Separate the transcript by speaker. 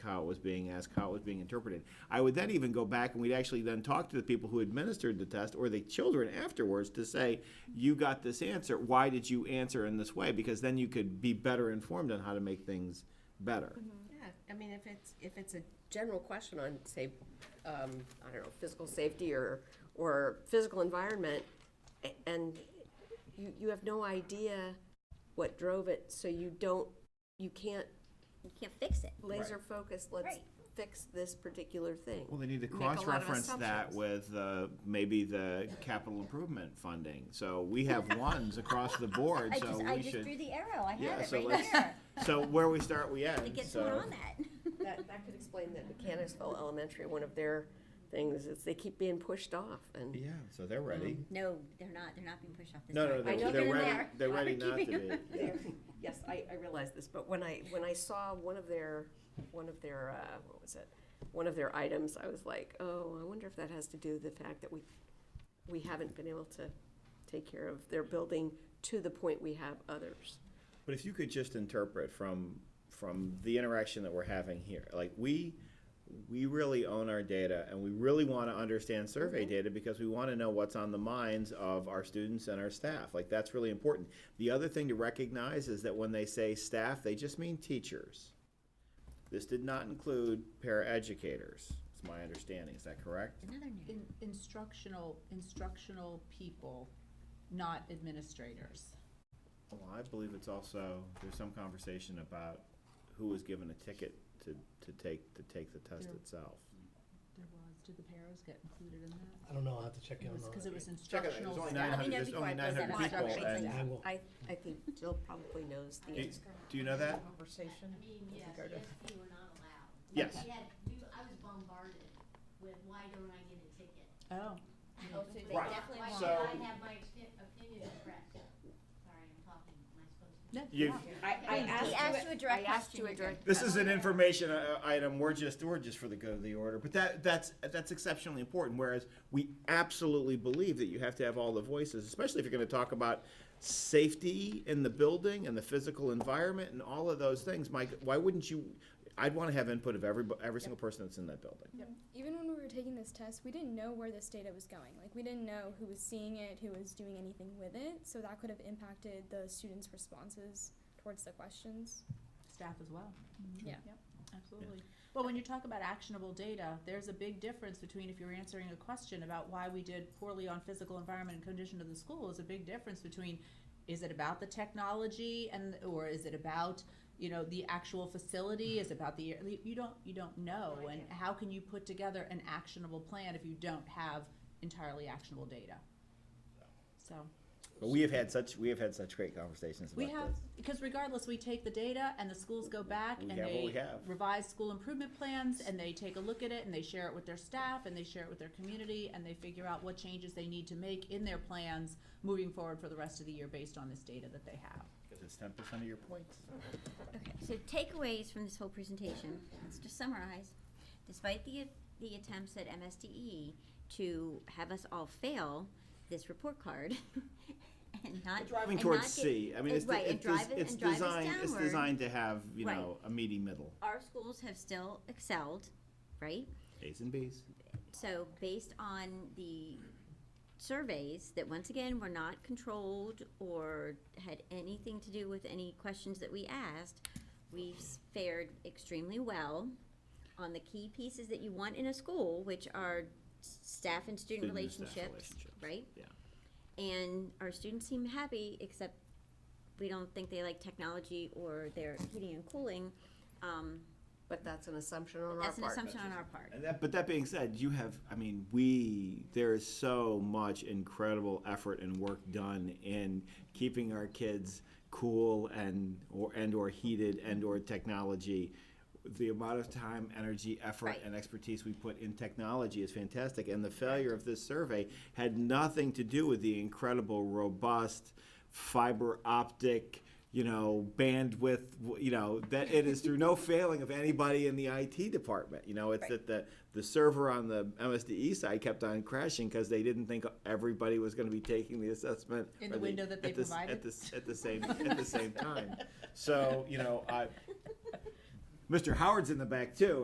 Speaker 1: how it was being asked, how it was being interpreted. I would then even go back and we'd actually then talk to the people who administered the test or the children afterwards to say, you got this answer. Why did you answer in this way? Because then you could be better informed on how to make things better.
Speaker 2: Mm-hmm.
Speaker 3: Yeah, I mean, if it's, if it's a general question on, say, um, I don't know, physical safety or, or physical environment, a- and you, you have no idea what drove it, so you don't, you can't
Speaker 2: You can't fix it.
Speaker 3: laser focus, let's
Speaker 2: Right.
Speaker 3: fix this particular thing.
Speaker 1: Well, they need to
Speaker 3: Make a lot of
Speaker 1: cross-reference that
Speaker 3: assumptions.
Speaker 1: with uh, maybe the capital improvement funding. So we have ones across the board,
Speaker 2: I
Speaker 1: so
Speaker 2: just, I
Speaker 1: we
Speaker 2: just threw
Speaker 1: should.
Speaker 2: the arrow. I
Speaker 1: Yeah,
Speaker 2: had it
Speaker 1: so
Speaker 2: right
Speaker 1: let's,
Speaker 2: there.
Speaker 1: so where we start, we
Speaker 2: To
Speaker 1: end,
Speaker 2: get someone
Speaker 1: so.
Speaker 2: on that.
Speaker 3: That, that could explain that Mechanicsville Elementary, one of their things is they keep being pushed off and.
Speaker 1: Yeah, so
Speaker 2: Um,
Speaker 1: they're ready.
Speaker 2: No, they're not, they're not being pushed off this.
Speaker 1: No, no,
Speaker 2: side.
Speaker 3: I
Speaker 1: they're,
Speaker 3: know they're
Speaker 1: they're ready,
Speaker 2: there.
Speaker 1: they're ready
Speaker 2: We're
Speaker 1: not to
Speaker 2: keeping
Speaker 1: be.
Speaker 2: them.
Speaker 1: Yeah.
Speaker 3: Yes, I, I realize this, but when I, when I saw one of their, one of their, uh, what was it? One of their items, I was like, oh, I wonder if that has to do with the fact that we, we haven't been able to take care of their building to the point we have others.
Speaker 1: But if you could just interpret from, from the interaction that we're having here, like, we, we really own our data, and we really wanna understand survey data, because we wanna know what's on the minds of our students and our staff, like, that's really important. The other thing to recognize is that when they say staff, they just mean teachers. This did not include paraeducators, is my understanding, is that correct?
Speaker 2: Another new.
Speaker 4: In- Instructional, instructional people, not administrators.
Speaker 1: Well, I believe it's also, there's some conversation about who was given a ticket to, to take, to take the test
Speaker 4: Yeah.
Speaker 1: itself.
Speaker 4: There was, did the paras get included in that?
Speaker 5: I don't know, I'll have to check in
Speaker 4: It
Speaker 5: on
Speaker 4: was,
Speaker 5: that.
Speaker 4: because it was
Speaker 1: Check it,
Speaker 4: instructional
Speaker 1: there's only
Speaker 4: staff.
Speaker 1: nine
Speaker 2: I
Speaker 1: hundred,
Speaker 2: know
Speaker 1: there's
Speaker 2: before
Speaker 1: only
Speaker 2: I
Speaker 1: nine
Speaker 2: close that
Speaker 1: hundred
Speaker 2: box,
Speaker 1: people,
Speaker 2: I'll check
Speaker 1: and,
Speaker 5: I will.
Speaker 3: I, I think Jill probably knows the
Speaker 1: do,
Speaker 3: answer.
Speaker 1: do you know that?
Speaker 3: Conversation.
Speaker 6: I mean, yes,
Speaker 3: regard to-
Speaker 6: yes, we were not allowed.
Speaker 1: Yes.
Speaker 6: We had, we, I was bombarded with, why don't I get a ticket?
Speaker 4: Oh,
Speaker 2: Oh, so they
Speaker 1: Right.
Speaker 2: definitely
Speaker 6: Why
Speaker 2: want-
Speaker 6: should I have my opi- opinion expressed? Sorry, I'm talking, am I supposed to?
Speaker 4: no,
Speaker 1: You-
Speaker 4: yeah.
Speaker 3: I, I asked
Speaker 2: He
Speaker 3: you.
Speaker 2: asked
Speaker 3: it-
Speaker 2: you a direct
Speaker 3: I asked
Speaker 2: question.
Speaker 3: you a
Speaker 2: you
Speaker 3: direct.
Speaker 1: This is an information uh, item, we're just, we're just for the good of the order, but that, that's, that's exceptionally important, whereas we absolutely believe that you have to have all the voices, especially if you're gonna talk about safety in the building and the physical environment and all of those things, Mike, why wouldn't you, I'd wanna have input of every, every single person that's in that building.
Speaker 7: even when we were taking this test, we didn't know where this data was going. Like, we didn't know who was seeing it, who was doing anything with it. So that could have impacted the students' responses towards the questions.
Speaker 4: staff as well.
Speaker 2: Yeah.
Speaker 4: Yep, absolutely. Well, when you talk about actionable data, there's a big difference between if you're answering a question about why we did poorly on physical environment and condition of the school, is a big difference between, is it about the technology and, or is it about, you know, the actual facility, is it about the, you don't, you don't know.
Speaker 6: No
Speaker 4: And
Speaker 6: idea.
Speaker 4: how can you put together an actionable plan if you don't have entirely actionable data? So.
Speaker 1: But we have had such, we have had such great conversations
Speaker 4: We
Speaker 1: about
Speaker 4: have,
Speaker 1: this.
Speaker 4: because regardless, we take the data and the schools go back
Speaker 1: We
Speaker 4: and
Speaker 1: have what we
Speaker 4: they
Speaker 1: have.
Speaker 4: revise school improvement plans and they take a look at it and they share it with their staff and they share it with their community and they figure out what changes they need to make in their plans moving forward for the rest of the year based on this data that they have.
Speaker 1: Because it's ten percent of your points.
Speaker 2: Okay, so takeaways from this whole presentation, let's just summarize. Despite the, the attempts at MSDE E to have us all fail this report card and not.
Speaker 1: Driving
Speaker 2: and
Speaker 1: towards
Speaker 2: not get-
Speaker 1: C, I mean,
Speaker 2: uh,
Speaker 1: it's,
Speaker 2: right, and
Speaker 1: it's,
Speaker 2: drive it-
Speaker 1: it's
Speaker 2: and drive us
Speaker 1: designed, it's
Speaker 2: downward.
Speaker 1: designed to have, you
Speaker 2: Right.
Speaker 1: know, a meaty middle,
Speaker 2: Our schools have still excelled, right?
Speaker 1: A's and B's.
Speaker 2: So based on the surveys that once again were not controlled or had anything to do with any questions that we asked, we've s- fared extremely well on the key pieces that you want in a school, which are s- staff and student
Speaker 1: Student and staff
Speaker 2: relationships,
Speaker 1: relationships,
Speaker 2: right?
Speaker 1: yeah.
Speaker 2: And our students seem happy, except we don't think they like technology or their heating and cooling. Um,
Speaker 3: But that's an assumption on our part.
Speaker 2: that's an assumption on our part.
Speaker 1: And that, but that being said, you have, I mean, we, there is so much incredible effort and work done in keeping our kids cool and, or, and or heated and or technology. The amount of time, energy, effort,
Speaker 2: Right.
Speaker 1: and expertise we put in technology is fantastic, and the failure of this survey had nothing to do with the incredible, robust, fiber optic, you know, bandwidth, w- you know, that it is through no failing of anybody in the IT department. You know, it's that the, the server on the MSDE side kept on crashing because they didn't think everybody was going to be taking the assessment
Speaker 4: In
Speaker 1: or
Speaker 4: the window that they
Speaker 1: at the s-
Speaker 4: provided?
Speaker 1: at the, s- at the same at the same time. So you know, I Mr. Howard's in the back too,